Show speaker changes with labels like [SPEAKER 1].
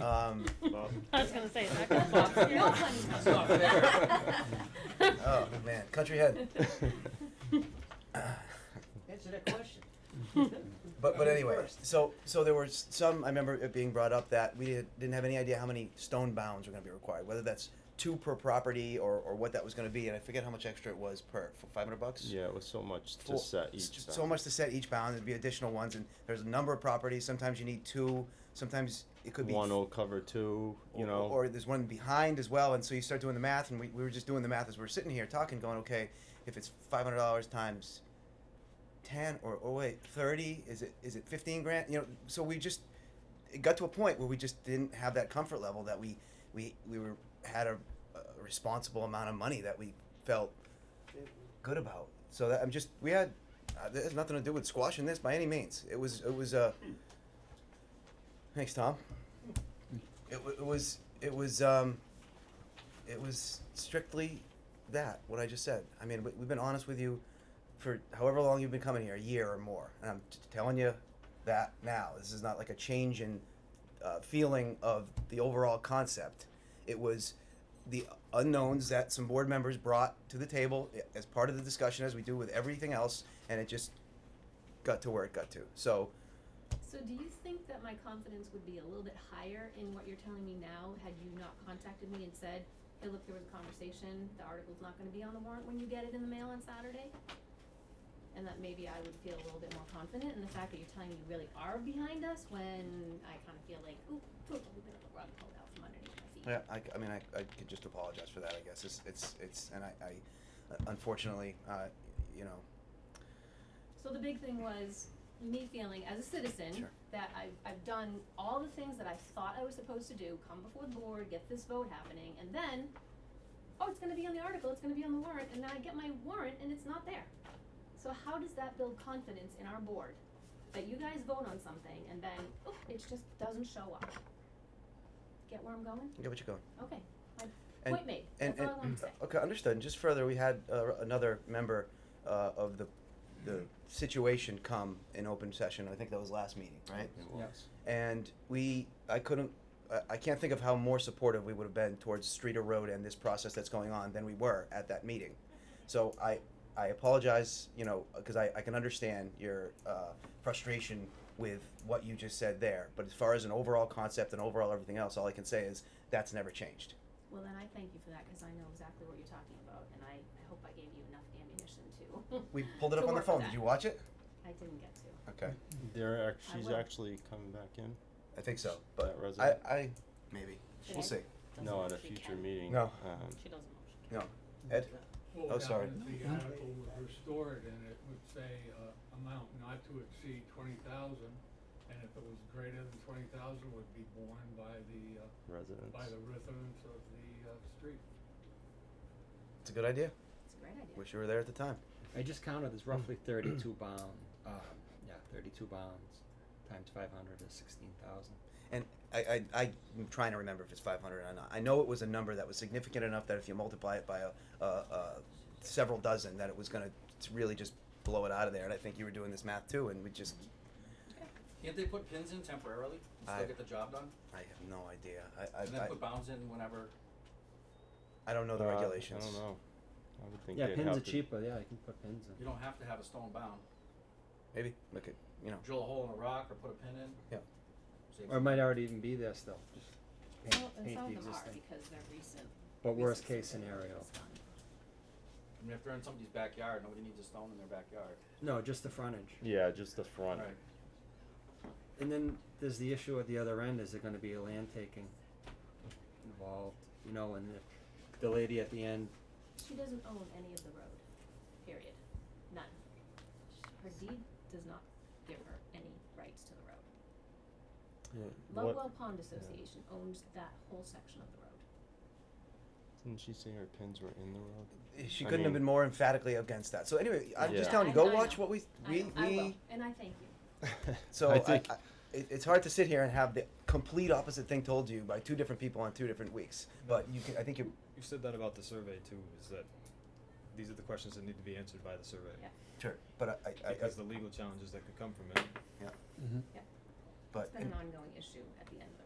[SPEAKER 1] Um,
[SPEAKER 2] I was gonna say, it's not gonna box here.
[SPEAKER 3] No pun
[SPEAKER 4] That's not fair.
[SPEAKER 1] oh, man, Country Head.
[SPEAKER 5] Answer that question.
[SPEAKER 1] But but
[SPEAKER 5] Who
[SPEAKER 1] anyway,
[SPEAKER 5] first?
[SPEAKER 1] so so there were s- some. I remember it being brought up that we didn't, didn't have any idea how many stone bounds were going to be required, whether that's two per property or, or what that was going to be, and I forget how much extra it was per for five hundred bucks.
[SPEAKER 4] Yeah, it was so much to
[SPEAKER 1] Full-
[SPEAKER 4] set
[SPEAKER 1] s-
[SPEAKER 4] each.
[SPEAKER 1] So
[SPEAKER 4] bound.
[SPEAKER 1] much to set each bound. There'd be additional ones, and there's a number of properties. Sometimes you need two. Sometimes it could be
[SPEAKER 4] One
[SPEAKER 1] f-
[SPEAKER 4] will cover two, you
[SPEAKER 1] or-
[SPEAKER 4] know.
[SPEAKER 1] or there's one behind as well and so you start doing the math and we, we were just doing the math as we are sitting here talking going okay if it's $500 times 10 or oh wait 30 is it is it 15 grand you know so we just it got to a point where we just didn't have that comfort level that we we we were had a, a responsible amount of money that we felt good about so that i'm just we had uh, that has nothing to do with squashing this by any means it was it was uh thanks tom it, w- it was it was um, it was strictly that what I just said. I mean, we, we've been honest with you for however long you've been coming here, a year or more, and I'm t- telling you that now. This is not like a change in uh, feeling of the overall concept. It was the unknowns that some board members brought to the table i- as part of the discussion, as we do with everything else, and it just got to where it got to. So.
[SPEAKER 3] So do you think that my confidence would be a little bit higher in what you're telling me now had you not contacted me and said, hey, look, there was a conversation, the article's not gonna be on the warrant when you get it in the mail on Saturday? And that maybe I would feel a little bit more confident in the fact that you're telling me you really are behind us when I kinda feel like, ooh, took a little bit of the rug pulled out from underneath my feet.
[SPEAKER 1] Yeah, I, I mean, I, I could just apologize for that, I guess, it's, it's, it's, and I, I, unfortunately, uh, you know,
[SPEAKER 3] So the big thing was me feeling as a citizen
[SPEAKER 1] Sure.
[SPEAKER 3] that I've, I've done all the things that I thought I was supposed to do, come before the board, get this vote happening, and then, oh, it's gonna be on the article, it's gonna be on the warrant, and then I get my warrant and it's not there. So how does that build confidence in our board? That you guys vote on something and then, oh, it just doesn't show up. Get where I'm going?
[SPEAKER 1] I get what you're going.
[SPEAKER 3] Okay, my
[SPEAKER 1] And-
[SPEAKER 3] point made,
[SPEAKER 1] And,
[SPEAKER 3] that's all I wanted
[SPEAKER 1] and,
[SPEAKER 3] to say.
[SPEAKER 1] okay, understood, and just further, we had, uh, another member, uh, of the, the situation come in open session, I think that was last meeting, right?
[SPEAKER 4] It
[SPEAKER 5] Yeah.
[SPEAKER 4] was.
[SPEAKER 1] And we, I couldn't, I, I can't think of how more supportive we would have been towards Streeter Road and this process that's going on than we were at that meeting. So I, I apologize, you know, because I, I can understand your uh, frustration with what you just said there. But as far as an overall concept and overall everything else, all I can say is that's never changed.
[SPEAKER 3] Well, then I thank you for that, cause I know exactly what you're talking about, and I, I hope I gave you enough ammunition to.
[SPEAKER 1] We pulled it
[SPEAKER 3] to
[SPEAKER 1] up on the
[SPEAKER 3] work with
[SPEAKER 1] phone. Did
[SPEAKER 3] that.
[SPEAKER 1] you watch it?
[SPEAKER 3] I didn't get to.
[SPEAKER 1] Okay,
[SPEAKER 4] They're act- she's
[SPEAKER 3] will.
[SPEAKER 4] actually coming back in.
[SPEAKER 1] I think so. But
[SPEAKER 4] That
[SPEAKER 1] I,
[SPEAKER 4] resume?
[SPEAKER 1] I maybe
[SPEAKER 3] Should
[SPEAKER 1] we'll
[SPEAKER 3] I?
[SPEAKER 1] see.
[SPEAKER 3] Doesn't
[SPEAKER 4] No, at a
[SPEAKER 3] actually
[SPEAKER 4] future
[SPEAKER 3] count.
[SPEAKER 4] meeting.
[SPEAKER 1] No.
[SPEAKER 4] Um,
[SPEAKER 3] She doesn't know she
[SPEAKER 1] No, Ed.
[SPEAKER 6] Well,
[SPEAKER 1] Oh,
[SPEAKER 6] now
[SPEAKER 1] sorry.
[SPEAKER 6] if The article was restored and it would say, uh, amount not to exceed twenty thousand, and if it was greater than twenty thousand, would be borne by the, uh,
[SPEAKER 4] residents.
[SPEAKER 6] by the residents of the, uh, street.
[SPEAKER 1] It's a good idea.
[SPEAKER 3] can. It's a great idea.
[SPEAKER 1] Wish you were there at the time.
[SPEAKER 7] I just counted. There's roughly
[SPEAKER 1] Hmm.
[SPEAKER 7] 32 bound. Um, yeah, 32 bounds times 500 is 16,000.
[SPEAKER 1] And I, I, I- I'm trying to remember if it's 500 or not. I know it was a number that was significant enough that if you multiply it by a, a, a several dozen, that it was going to really just blow it out of there. And I think you were doing this math too, and we just,
[SPEAKER 8] Can't they put pins in temporarily and still
[SPEAKER 1] I-
[SPEAKER 8] get the job done?
[SPEAKER 1] I have no idea. I,
[SPEAKER 8] And then
[SPEAKER 1] I,
[SPEAKER 8] put bounds in whenever.
[SPEAKER 1] I, I don't know the
[SPEAKER 4] Uh,
[SPEAKER 1] regulations.
[SPEAKER 4] I don't know. I would think
[SPEAKER 7] Yeah,
[SPEAKER 4] they'd
[SPEAKER 7] pins
[SPEAKER 4] have
[SPEAKER 7] are
[SPEAKER 4] to-
[SPEAKER 7] cheaper. Yeah, you can put pins in.
[SPEAKER 8] You don't have to have a stone bound.
[SPEAKER 1] Maybe look at you know.
[SPEAKER 8] Drill a hole in a rock or put a pin in.
[SPEAKER 1] Yeah.
[SPEAKER 8] Saves
[SPEAKER 7] Or it might already even be there still. Just paint,
[SPEAKER 3] Well, and
[SPEAKER 7] paint
[SPEAKER 3] some
[SPEAKER 7] the
[SPEAKER 3] of them are
[SPEAKER 7] existing.
[SPEAKER 3] because they're recent.
[SPEAKER 7] But worst
[SPEAKER 3] recent
[SPEAKER 7] case
[SPEAKER 3] stuff that
[SPEAKER 7] scenario.
[SPEAKER 3] was done.
[SPEAKER 8] I mean, if they're in somebody's backyard, nobody needs a stone in their backyard.
[SPEAKER 7] No, just the frontage.
[SPEAKER 4] Yeah, just the front.
[SPEAKER 8] Right.
[SPEAKER 7] And then there's the issue at the other end. Is there going to be a land taking involved? You know, and the, the lady at the end.
[SPEAKER 3] She doesn't own any of the road, period. None. Sh- Her deed does not give her any rights to the road.
[SPEAKER 4] Yeah. What?
[SPEAKER 3] Lovewell Pond Association owns that whole section of the road.
[SPEAKER 4] Didn't she say her pins were in the road?
[SPEAKER 1] She
[SPEAKER 4] I
[SPEAKER 1] couldn't have
[SPEAKER 4] mean-
[SPEAKER 1] been more emphatically against that. So anyway, I'm just
[SPEAKER 4] Yeah.
[SPEAKER 1] telling you,
[SPEAKER 3] I-
[SPEAKER 1] go
[SPEAKER 3] I
[SPEAKER 1] watch
[SPEAKER 3] know.
[SPEAKER 1] what we
[SPEAKER 3] I
[SPEAKER 1] we
[SPEAKER 3] know-
[SPEAKER 1] we.
[SPEAKER 3] I will, and I thank you.
[SPEAKER 1] So I
[SPEAKER 4] I think
[SPEAKER 1] I, it, it's hard to sit here and have the complete opposite thing told to you by two different people on two different weeks. But you can, I think you
[SPEAKER 9] You've said that about the survey too, is that these are the questions that need to be answered by the survey.
[SPEAKER 3] Yeah.
[SPEAKER 1] sure. But I, I, I,
[SPEAKER 9] Because the legal challenges that could come from it.
[SPEAKER 1] yeah.
[SPEAKER 7] Mm-hmm.
[SPEAKER 3] Yep.
[SPEAKER 1] But
[SPEAKER 3] It's been an ongoing issue at the end of